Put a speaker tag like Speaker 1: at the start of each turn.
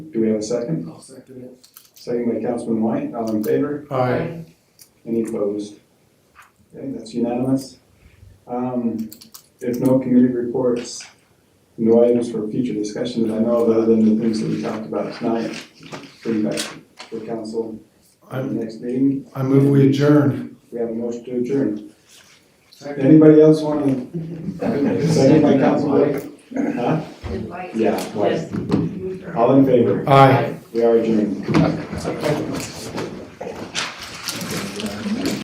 Speaker 1: Do we have a second?
Speaker 2: I'll second it.
Speaker 1: Second by Councilman White, all in favor?
Speaker 2: Aye.
Speaker 1: Any opposed? Okay, that's unanimous. Um, if no committee reports, no items for future discussion that I know of other than the things that we talked about tonight. Bring back for council at the
Speaker 3: I,
Speaker 1: next meeting.
Speaker 3: I move we adjourn.
Speaker 1: We have a motion to adjourn.
Speaker 2: Second.
Speaker 1: Anybody else want to? Second by Councilman White? Huh?
Speaker 4: Invite.
Speaker 1: Yeah, twice.
Speaker 4: Yes.
Speaker 1: All in favor?
Speaker 3: Aye.
Speaker 1: We are adjourned.